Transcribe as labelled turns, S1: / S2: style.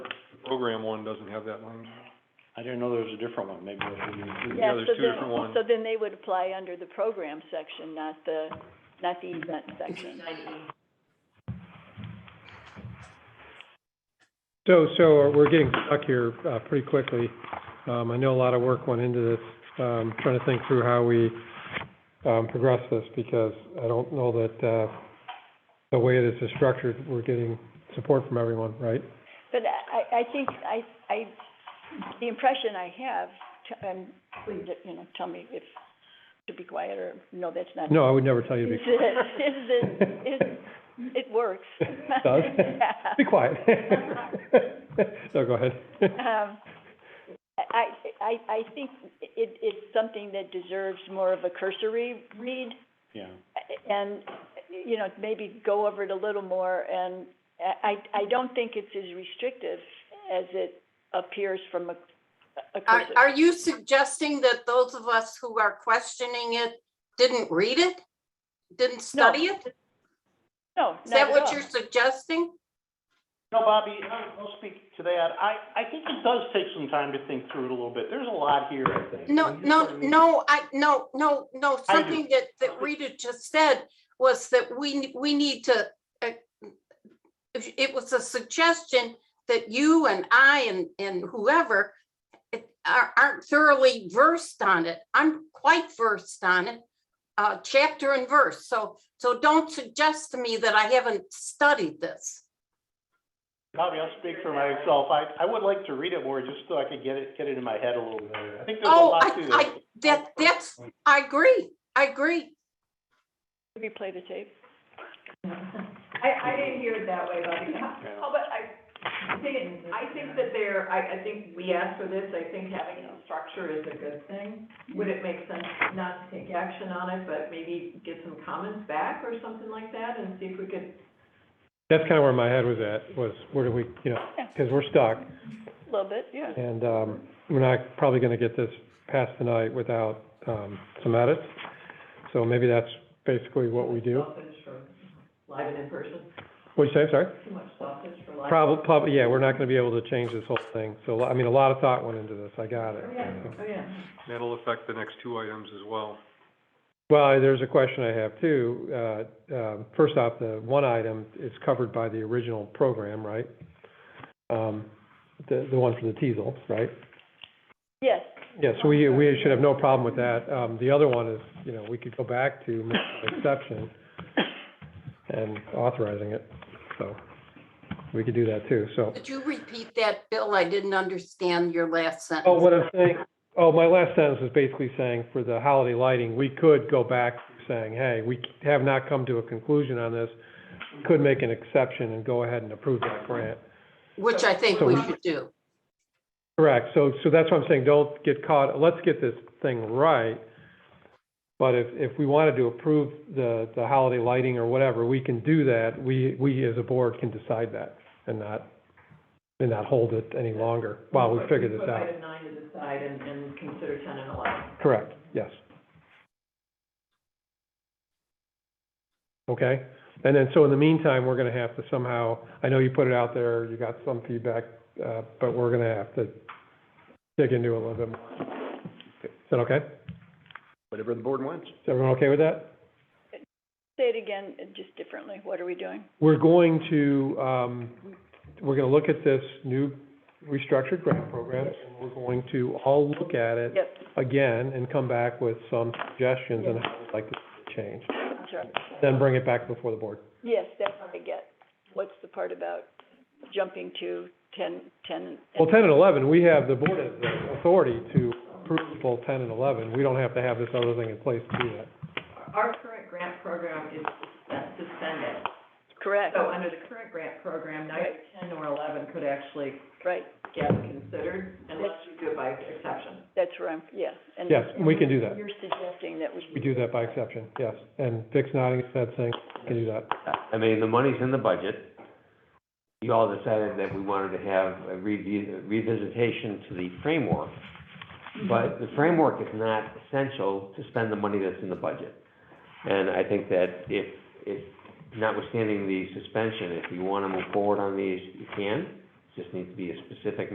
S1: program one doesn't have that one.
S2: I didn't know there was a different one, maybe that's what you.
S1: Yeah, there's two different ones.
S3: so then they would apply under the program section, not the, not the event section.
S4: So, so uh, we're getting stuck here, uh, pretty quickly. Um, I know a lot of work went into this, um, trying to think through how we, um, progress this because I don't know that, uh, the way this is structured, we're getting support from everyone, right?
S3: But I, I think, I, I, the impression I have, t- and please, you know, tell me if, to be quiet or, no, that's not.
S4: No, I would never tell you to
S3: Is
S4: be,
S3: that, is that, is, it works.
S4: Does?
S3: Yeah.
S4: be quiet. No, go ahead.
S3: Um, I, I, I think it, it's something that deserves more of a cursory read,
S2: Yeah,
S3: and, you know, maybe go over it a little more, and I, I I don't think it's as restrictive as it appears from a, a
S5: Are,
S3: cursory.
S5: are you suggesting that those of us who are questioning it didn't read it? Didn't study it?
S3: No,
S5: Is
S3: not
S5: that
S3: at
S5: what
S3: all.
S5: you're suggesting?
S6: No, Bobby, I'll I'll speak to that. I, I think it does take some time to think through it a little bit. There's a lot here, I think.
S5: No,
S6: And you're
S5: no,
S6: putting-
S5: no, I, no, no, no,
S6: I do.
S5: something that, that Rita just said was that we, we need to, uh, if- it was a suggestion that you and I and, and whoever it- are- aren't thoroughly versed on it. I'm quite versed on it, uh, chapter and verse. So, so don't suggest to me that I haven't studied this.
S6: Bobby, I'll speak for myself. I, I would like to read it more just so I could get it, get it in my head a little better. I think there's a
S5: Oh,
S6: lot to
S5: I, I,
S6: this.
S5: that, that's, I agree, I agree.
S3: Replay the tape.
S7: I, I didn't hear it that way, Bobby.
S6: Yeah.
S7: Oh, but I think, I think that there, I, I think we asked for this, I think having a structure is a good thing. Would it make sense not to take action on it, but maybe get some comments back or something like that and see if we could,
S4: That's kind of where my head was at, was where do we, you know, because we're stuck.
S3: A little bit, yeah.
S4: And, um, we're not probably gonna get this passed tonight without, um, some edits. So maybe that's basically what we do.
S7: sausage for live and in person,
S4: What'd you say, sorry?
S7: too much sausage for live.
S4: Probably, probably, yeah, we're not gonna be able to change this whole thing. So, I mean, a lot of thought went into this, I got it.
S7: Oh, yeah, oh, yeah.
S1: That'll affect the next two items as well.
S4: Well, there's a question I have too. Uh, um, first off, the one item is covered by the original program, right? Um, the, the one for the teasel, right?
S3: Yes,
S4: Yeah, so we, we should have no problem with that. Um, the other one is, you know, we could go back to make an exception and authorizing it, so we could do that too, so.
S5: Could you repeat that, Bill? I didn't understand your last sentence.
S4: Oh, what I'm saying, oh, my last sentence is basically saying for the holiday lighting, we could go back to saying, hey, we have not come to a conclusion on this. We Could make an exception and go ahead and approve that grant.
S5: Which I think
S4: So
S5: we
S4: we-
S5: should do.
S4: Correct, so, so that's what I'm saying, don't get caught, let's get this thing right. But if, if we wanted to approve the, the holiday lighting or whatever, we can do that. We, we as a board can decide that and not, and not hold it any longer while we
S7: Put-
S4: figure this
S7: Put
S4: out.
S7: item nine to the side and, and consider ten and eleven.
S4: Correct, yes. Okay, and then, so in the meantime, we're gonna have to somehow, I know you put it out there, you got some feedback, uh, but we're gonna have to dig into it a little bit more. Is that okay? Is
S2: whatever the board wants.
S4: everyone okay with that?
S3: say it again, uh, just differently. What are we doing?
S4: We're going to, um, we're gonna look at this new restructured grant program, and we're going to all look at it
S3: Yep,
S4: again and come back with some suggestions on how we'd like to change,
S3: I'm sorry.
S4: then bring it back before the board.
S3: Yes, that's what I get. What's the part about jumping to ten, ten?
S4: Well, ten and eleven, we have, the board has the authority to approve both ten and eleven. We don't have to have this other thing in place to do that.
S7: Our current grant program is suspend- suspended.
S3: Correct,
S4: Oh,
S7: So under the current grant program, neither ten or eleven could actually
S3: right.
S7: get considered unless you do it by exception.
S3: That's where I'm, yeah. and-
S4: Yes, we can do that.
S3: You're suggesting that we.
S4: We do that by exception, yes. And Vic's nodding his head saying, we can do that.
S8: I mean, the money's in the budget. You all decided that we wanted to have a revi- revisitation to the framework, but the framework is not essential to spend the money that's in the budget. And I think that if, if, notwithstanding the suspension, if you want to move forward on these, you can. just needs to be a specific